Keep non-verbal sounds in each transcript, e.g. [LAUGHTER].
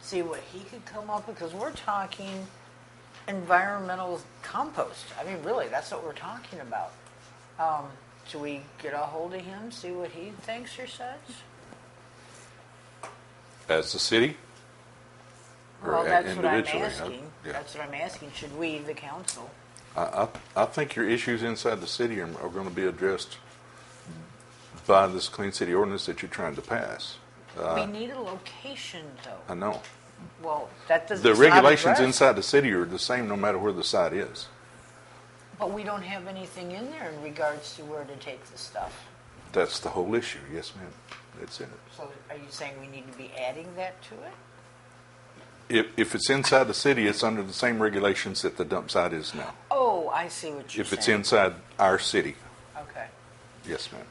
see what he could come up with, because we're talking environmental compost. I mean, really, that's what we're talking about. Um, should we get a hold of him, see what he thinks or says? As the city? Or Well, a- that's what I'm individually, huh? asking. Yeah. That's what I'm asking. Should we, the council? I, I, I think your issues inside the city are, are going to be addressed by this clean city ordinance that you're trying to pass. Uh, We need a location, I though. know. Well, that doesn't. The it's not regulations addressed. inside the city are the same no matter where the site is. But we don't have anything in there in regards to where to take the stuff. That's the whole issue. Yes, ma'am. That's in it. So are you saying we need to be adding that to it? If, if it's inside the city, it's under the same regulations that the dump site is now. Oh, I see what you're saying. If it's inside our city, Okay. yes, ma'am,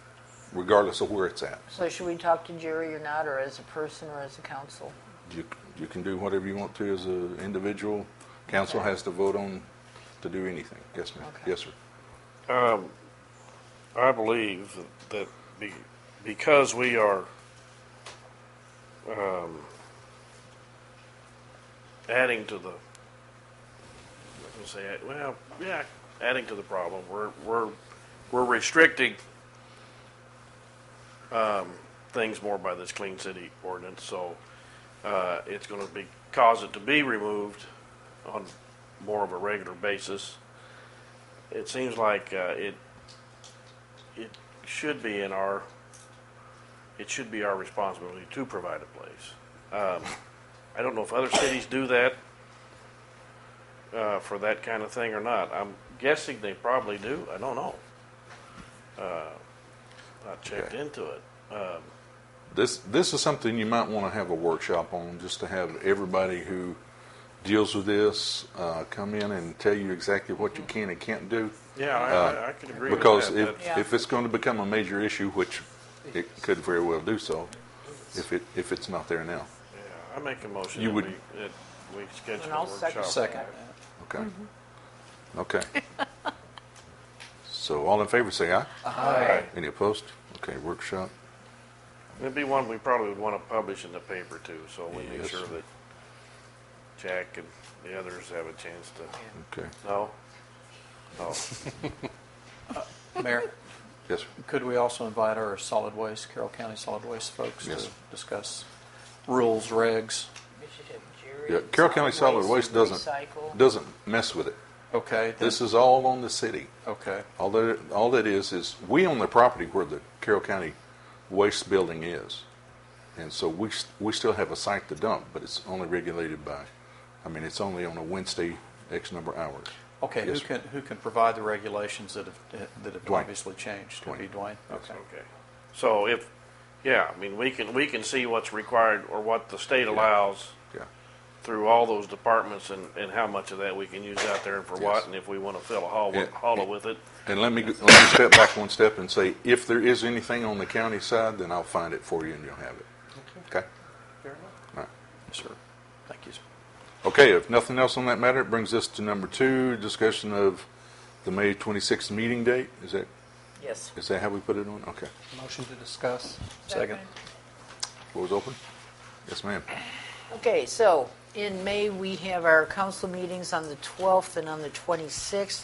regardless of where it's at. So should we talk to Jerry or not, or as a person or as a council? You, you can do whatever you want to as an individual. Council has to vote on to do anything. Yes, ma'am. Okay. Yes, sir. I believe that be, because we are um, adding to the, I was gonna say, well, yeah, adding to the problem. We're we're we're restricting um, things more by this clean city ordinance, so uh, it's going to be cause it to be removed on more of a regular basis. It seems like uh, it it should be in our, it should be our responsibility to provide a place. Um, I don't know if other cities do that uh, for that kind of thing or not. I'm guessing they probably do. I don't know. Uh, I checked Okay. into it. This, this is something you might want to have a workshop on, just to have everybody who deals with this uh, come in and tell you exactly what Mm-hmm. you can and can't do. Yeah, I, I, I can agree with that. Uh, Because if, That's- Yeah. if it's going to become a major issue, which it could very well do so, if it, if it's not there now, yeah, I make a motion You that we, would- that we schedule And a I'll second workshop. that. okay? Mm-hmm. [LAUGHS] Okay. So all in favor, say aye. Aye. Any opposed? Okay, workshop. It'd be one we probably would want to publish in the paper too, so we make Yes. sure that Jack and the others have a chance to, Okay, no? No, Mayor, yes, sir. could we also invite our solid waste, Carroll County Solid Waste folks Yes. to discuss rules, regs? We should have Jerry. Yeah, Carroll County Solid Waste and doesn't, Recycle. doesn't mess with it. Okay, then- This is all on the city. okay, All that, all that is, is we own the property where the Carroll County Waste Building is. And so we, s- we still have a site to dump, but it's only regulated by, I mean, it's only on a Wednesday, X number of hours. okay. Who Yes, sir. can, who can provide the regulations that have, that have Dwayne. obviously changed? Could be Dwayne? Okay. okay. So if, yeah, I mean, we can, we can see what's required or what the state allows Yeah, through all those departments and, and how much of that we can use out there and for Yes. what, and if we want to fill a hollow, Yeah. hollow with it. and let me, go- let me step back one step and say, if there is anything on the county side, then I'll find it for you and you'll have it. Okay? All right. Yes, sir. Thank you. sir. Okay, if nothing else on that matter, it brings us to number two, discussion of the May 26th meeting date. Is that, Yes. is that how we put it on? Okay. Motion to discuss. Second. Floor is open? Yes, ma'am. Okay, so in May, we have our council meetings on the 12th and on the 26th.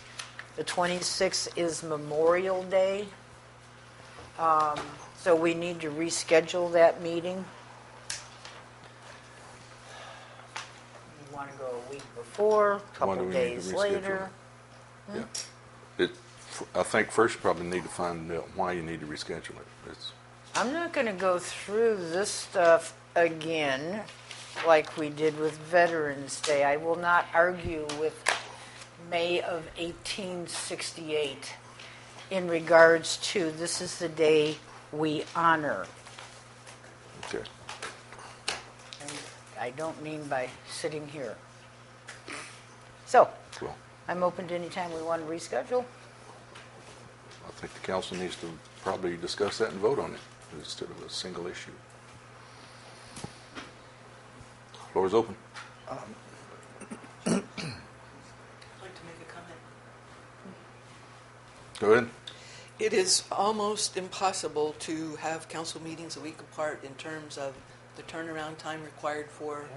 The 26th is Memorial Day, Um, so we need to reschedule that meeting. You want to go a week before, a Why do couple we need to days reschedule? later. Yeah. It, I think first you probably need to find out why you need to reschedule it. It's, I'm not going to go through this stuff again like we did with Veterans Day. I will not argue with May of 1868 in regards to this is the day we honor. okay. And I don't mean by sitting here. So Well, I'm open to any time we want to reschedule. I think the council needs to probably discuss that and vote on it instead of a single issue. Floor is open. I'd like to make a comment. Go ahead. It is almost impossible to have council meetings a week apart in terms of the turnaround time required for